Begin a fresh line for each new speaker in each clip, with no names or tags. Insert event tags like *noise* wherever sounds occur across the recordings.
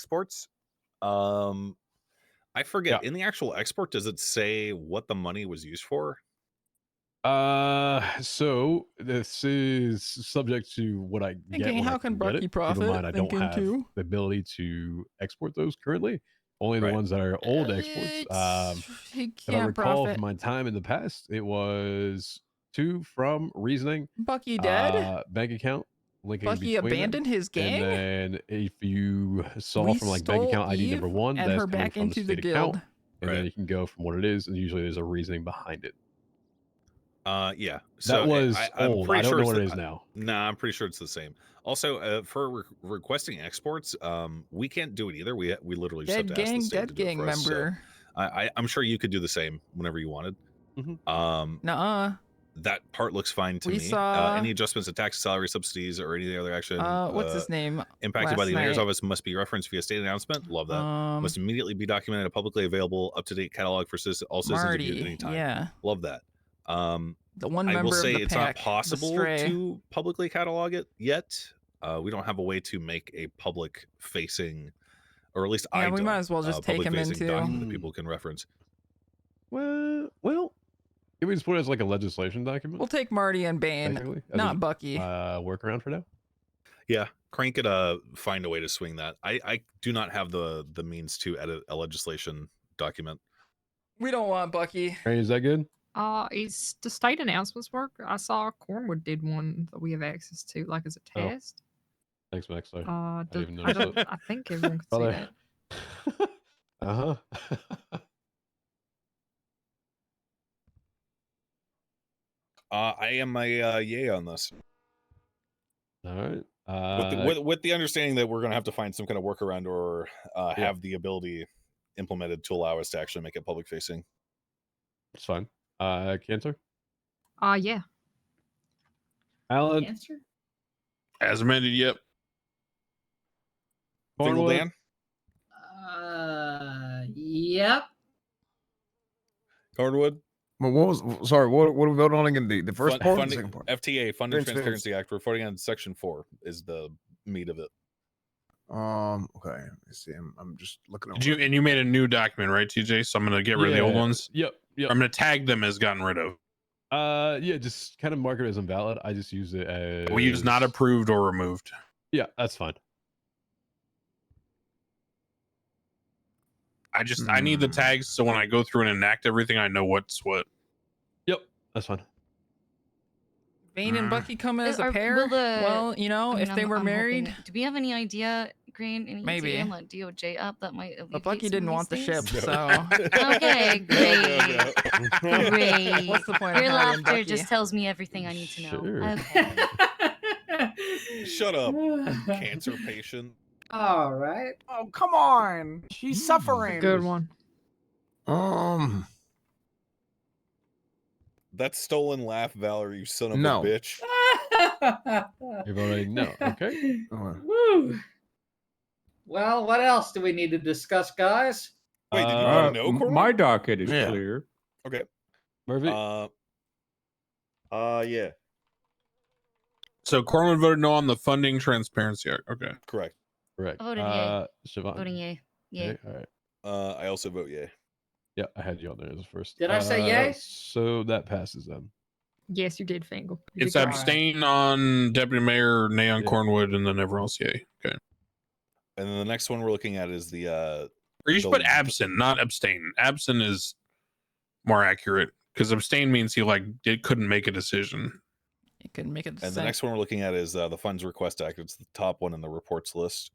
exports. Um, I forget
Yeah.
in the actual export, does it say what the money was used for?
Uh, so this is subject to what I get.
Thinking,
when I
how can
get it.
Barky
Keep in
profit?
mind, I don't
Thinking
have
too.
the ability to export those currently. Only the
Right.
ones that are old exports. Um,
he
if I
can't
recall
profit.
from my time in the past, it was two from reasoning,
Bucky dead.
uh, bank account linking.
Bucky
between them.
abandoned his gang.
And then if you saw
We
from like bank
stole
account ID number
Eve
one,
and
that's
her
coming
back
from
into the
state
guild.
account, and
Right.
then you can go from what it is, and usually there's a reasoning behind it.
Uh, yeah.
that
I-
was
I, I'm
old.
pretty
I don't
sure
know
it's
what
the- uh,
it is now.
Nah, I'm pretty sure it's the same. Also, uh, for re- requesting exports, um, we can't do it either. We we literally just have
Dead
to
gang,
ask the state to
dead
do it
gang
for us, so
member.
I, I, I'm sure you could do the same whenever you wanted.
Mhm.
Um,
Nuh-uh.
that part looks fine to
We
me.
saw-
uh, any adjustments to tax, salary, subsidies, or any other action
Uh, what's
uh,
his name?
impacted by
last
the mayor's
night?
office must be referenced via state announcement. Love that.
Um,
must immediately be documented in a publicly available, up to date catalog for citizen, all citizens of Butte at
Marty.
any time.
Yeah,
Love that. Um,
the one
I
member
will say
of the
it's not
pack. the
possible
stray.
to publicly catalog it yet. Uh, we don't have a way to make a public facing, or at least I
Yeah, we
don't,
might as well just
uh,
take him
public-facing
into-
document that
Hmm.
people can reference. uh,
Well, well, can we just put it as like a legislation document?
We'll take Marty and Bane,
technically, as
not
a,
Bucky.
uh, workaround for now.
Yeah, Crank could uh, find a way to swing that. I, I do not have the the means to edit a legislation document.
we don't want Bucky.
Hey, is that good?
Uh, is the state announcements work? I saw Cornwood did one that we have access to, like as a
Oh.
test.
Thanks, Max. *laughs* Sorry.
Uh, do-
even
I,
notice
don't,
that.
I think everyone could see
Brother.
that.
*laughs* uh huh.
Uh, I am a uh, yay on this,
All right.
with,
Uh,
the, with, with the understanding that we're going to have to find some kind of workaround or uh,
Yeah.
have the ability implemented to allow us to actually make it public facing.
it's fine. Uh, Cantor,
Uh, yeah.
Alan,
Answer?
As amended, yep.
Single
Cornwood,
Dan.
Uh, yep.
Cardwood.
Well, what was sorry? What what are we voting on again? The, the first
Fund-
part, or the
funding-
second part.
FTA, Funding
Transparency.
Transparency Act. We're voting on Section Four. Is the meat of it?
Um. Okay. Let's see. I'm, I'm just looking.
Did
over
you
it.
and you made a new document, right, TJ? So I'm gonna get rid of the old
Yeah.
ones.
Yep. Yep.
I'm gonna tag them as gotten rid of.
Uh, yeah. Just kind of mark it as invalid. I just use it as
We use not approved or removed.
Yeah, that's fine.
I just I need the
Hmm.
tags so when I go through and enact everything, I know what's what.
Yep, that's fine.
Bane and
Mm.
Bucky come as
Uh,
a
are-
pair.
will the-
well, you know,
I
if
mean,
they
I'm-
were
I'm hoping
married,
that- do we have any idea, Green? Any
Maybe.
idea on like DOJ up that might.
but
alleviate
Bucky
some of
didn't
these
want the
things?
ship, *laughs*
*laughs* No.
so
*laughs*
Okay,
No, no, no.
Great.
what's the point of Marty
Your
and
laughter
Bucky?
just tells me everything I need to know.
Sure.
Okay.
Shut
*laughs*
up, Cancer patient.
All right. *laughs*
Oh, come on. She's suffering.
Good one.
Um.
That's stolen laugh, Valerie. You son of
No.
a bitch.
Uh,
You're voting no. Okay.
uh,
Woo. Well, what else do we need to discuss, guys?
Wait, did you
Uh,
want to know,
m-
Cornwood?
my docket is
Yeah.
clear.
Okay.
Murphy.
Uh,
Uh, yeah.
So Cornwood voted no on the funding transparency act. Okay.
correct.
Correct.
I voted yay.
uh, Siobhan.
Voting yay. Yay.
All right.
Uh, I also vote yay.
Yeah, I had you on there as the first.
Did I say
Uh,
yay?
So that passes then.
Yes, you did, Fangle. You
It's
did
Alright.
great.
abstain-
abstain on Deputy Mayor Neon
Yeah.
Cornwood and then everyone else. Yay. Okay.
And then the next one we're looking at is the uh,
Or you should
The-
put absent, not abstain. Absent is more accurate because abstain means he like did couldn't make a decision.
you couldn't make it.
and the next one we're looking at is uh, the Funds Request Act. It's the top one in the reports
*laughs*
list.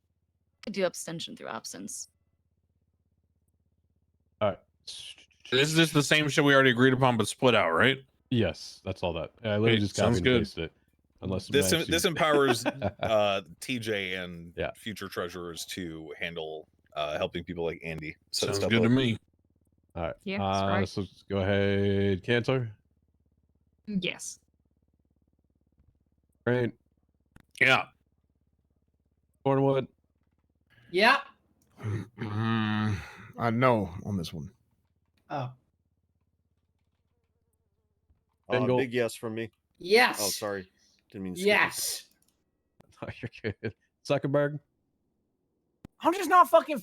Could do abstention through absence.
All right.
This is just the same shit we already agreed upon, but split out, right?
Yes, that's all that. I literally
Hey,
just copied
sounds
and
good.
pasted it. Unless
This
Max,
em-
you- *laughs*
this empowers,
Uh-huh.
Uh, TJ and
Yeah.
future treasurers to handle uh, helping people like Andy. set
Sounds
stuff
good to
up.
me.
Yeah, that's
uh,
right.
So just go ahead, Cantor.
Yes.
Great.
Yeah.
Cornwood.
Yeah.
*clears throat* I know on this one.
Oh,
Uh,
Bingo.
big
*laughs*
yes from me.
yes.
Oh, sorry. Didn't mean. to skip it.
Yes.
Oh, you're good. Zuckerberg.
I'm just not fucking